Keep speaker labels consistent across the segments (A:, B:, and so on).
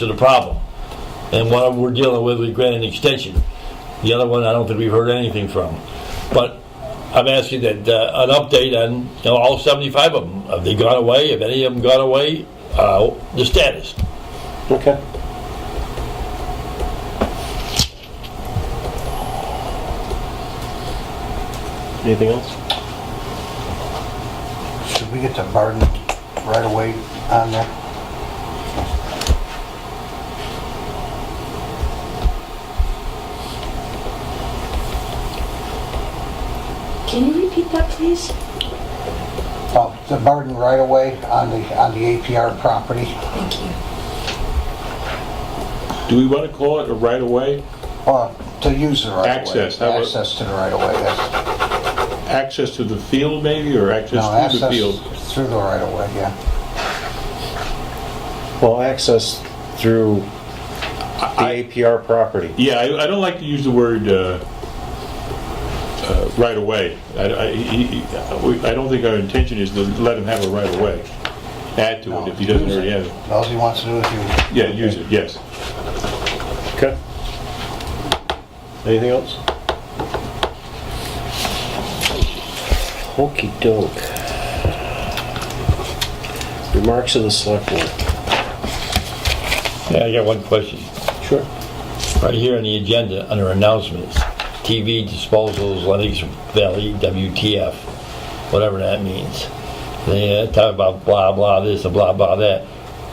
A: to the problem. And one we're dealing with, we grant an extension. The other one, I don't think we've heard anything from. But I'm asking that, uh, an update on, you know, all 75 of them. Have they gone away? Have any of them gone away? Uh, The status.
B: Okay. Anything else?
C: Should we get the burden right away on there?
D: Can you repeat that, please?
C: Oh, the burden right away on the, on the APR property
D: Thank you.
E: Do we want to call it a right of way?
C: or Uh, to use the right of way?
E: Access, how about-
C: Access to the right of way, that's,
E: Access to the field maybe, or
C: no,
E: access through the field?
C: access through the right of way, yeah.
B: Well, access through the
E: I-
B: APR property.
E: Yeah, I, I don't like to use the word uh, uh, right of way. I, I- he- he- we- I don't think our intention is to let him have a right of way. Add to it if he doesn't already have it.
C: All he wants to do is use it.
E: Yeah, use it, yes.
B: Okay. Anything else? Okey doke. Remarks of the select board.
A: Yeah, I got one question.
B: Sure.
A: Right here on the agenda, under announcements, TV disposals, Lennox Valley, WTF, whatever that means. They uh, talk about blah, blah, this, and blah, blah, that.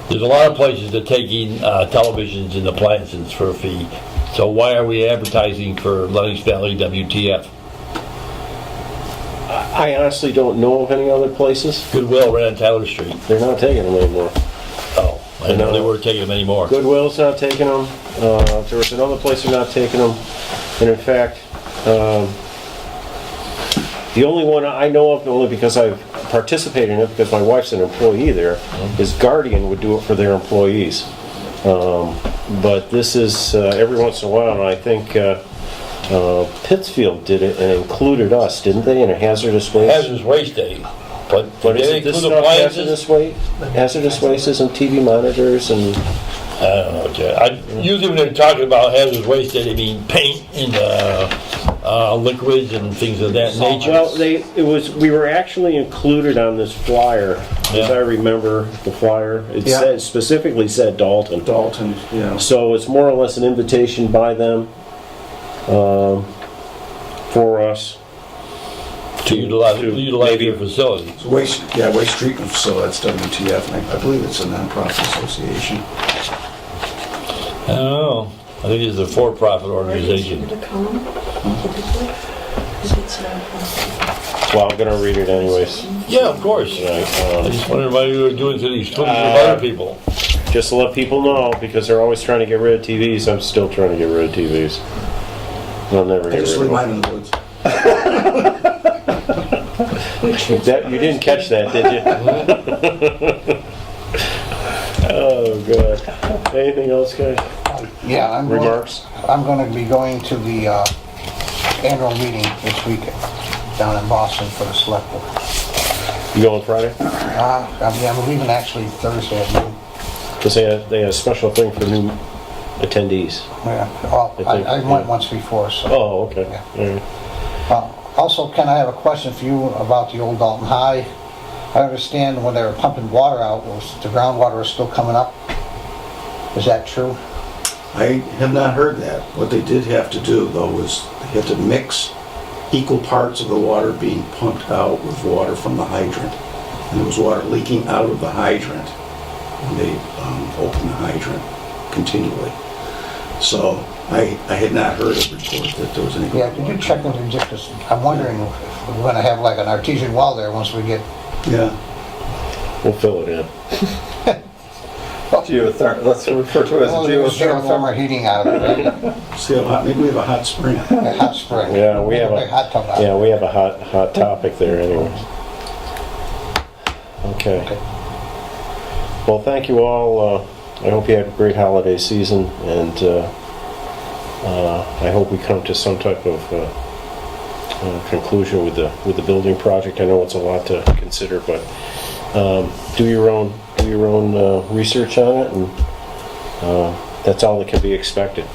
A: There's a lot of places that are taking uh, televisions and appliances for a fee. So why are we advertising for Lennox Valley, WTF?
B: I honestly don't know of any other places.
A: Goodwill right on Tyler Street.
B: They're not taking them anymore.
A: Oh, I didn't know they weren't taking them anymore.
B: Goodwill's not taking them. Uh, there was another place they're not taking them. And in fact, um, the only one I know of, only because I've participated in it, because my wife's an employee there, is Guardian would do it for their employees. Um, but this is uh, every once in a while, and I think uh, uh, Pittsfield did it and included us, didn't they, in a hazardous waste?
A: Hazardous waste day, but
B: But
A: did they
B: isn't this
A: include
B: stuff
A: appliances?
B: hazardous waste? Hazardous waste isn't TV monitors and,
A: I don't know, Chad. uh, I, usually when they're talking about hazardous waste, they mean paint and, uh, uh, liquids and things of that nature.
B: well, they, it was, we were actually included on this flyer, as
A: Yeah.
B: I remember the flyer. It
C: Yeah.
B: said, specifically said Dalton.
F: Dalton, yeah.
B: So it's more or less an invitation by them, um, for us.
A: To utilize,
B: to
A: utilize your
B: maybe-
A: facility.
F: So waste, yeah, waste treatment facility, that's WTF, and I I believe it's a nonprofit association.
A: I don't know. I think it's a for-profit organization.
B: Well, I'm gonna read it anyways.
A: Yeah, of course.
B: Right,
A: I
B: um,
A: just wondered why you were doing to these twenty
B: Uh,
A: other people.
B: Just to let people know, because they're always trying to get rid of TVs, I'm still trying to get rid of TVs. I'll never
F: I
B: get rid
F: just
B: of
F: leave
B: them.
F: mine in the woods.
D: uh,
B: That, you didn't catch that, did you? Oh, God. Anything else, guys?
C: Yeah, I'm going,
B: Remarks?
C: I'm going to be going to the uh, annual meeting this weekend down in Boston for the select board.
B: You going Friday?
C: Uh, I mean, I'm leaving actually Thursday at noon.
B: Because they had, they had a special thing for new attendees.
C: Yeah, well,
B: I think-
C: I I went once before, so.
B: Oh, okay.
C: Yeah.
B: All right.
C: Uh, Also, Ken, I have a question for you about the old Dalton High. I understand when they were pumping water out, was the groundwater was still coming up? Is that true?
F: I have not heard that. What they did have to do, though, was they had to mix equal parts of the water being pumped out with water from the hydrant. And there was water leaking out of the hydrant when they um, opened the hydrant continually. So I, I had not heard a report that there was any.
C: Yeah, did you check with the district? I'm wondering if we're gonna have like an artesian well there once we get,
F: Yeah.
B: We'll fill it in.
G: Geothermal, let's refer to it as
C: well, there's
G: geothermal.
C: geothermal heating out of it, right?
F: See, a hot, maybe we have a hot spring.
C: A hot spring.
B: Yeah, we have
C: A big hot tub
B: a,
C: out.
B: yeah, we have a hot, hot topic there anyways. Okay.
C: Okay.
B: Well, thank you all. Uh, I hope you have a great holiday season and uh, uh, I hope we come to some type of uh, uh, conclusion with the, with the building project. I know it's a lot to consider, but um, do your own, do your own uh, research on it and Uh, That's all that can be expected.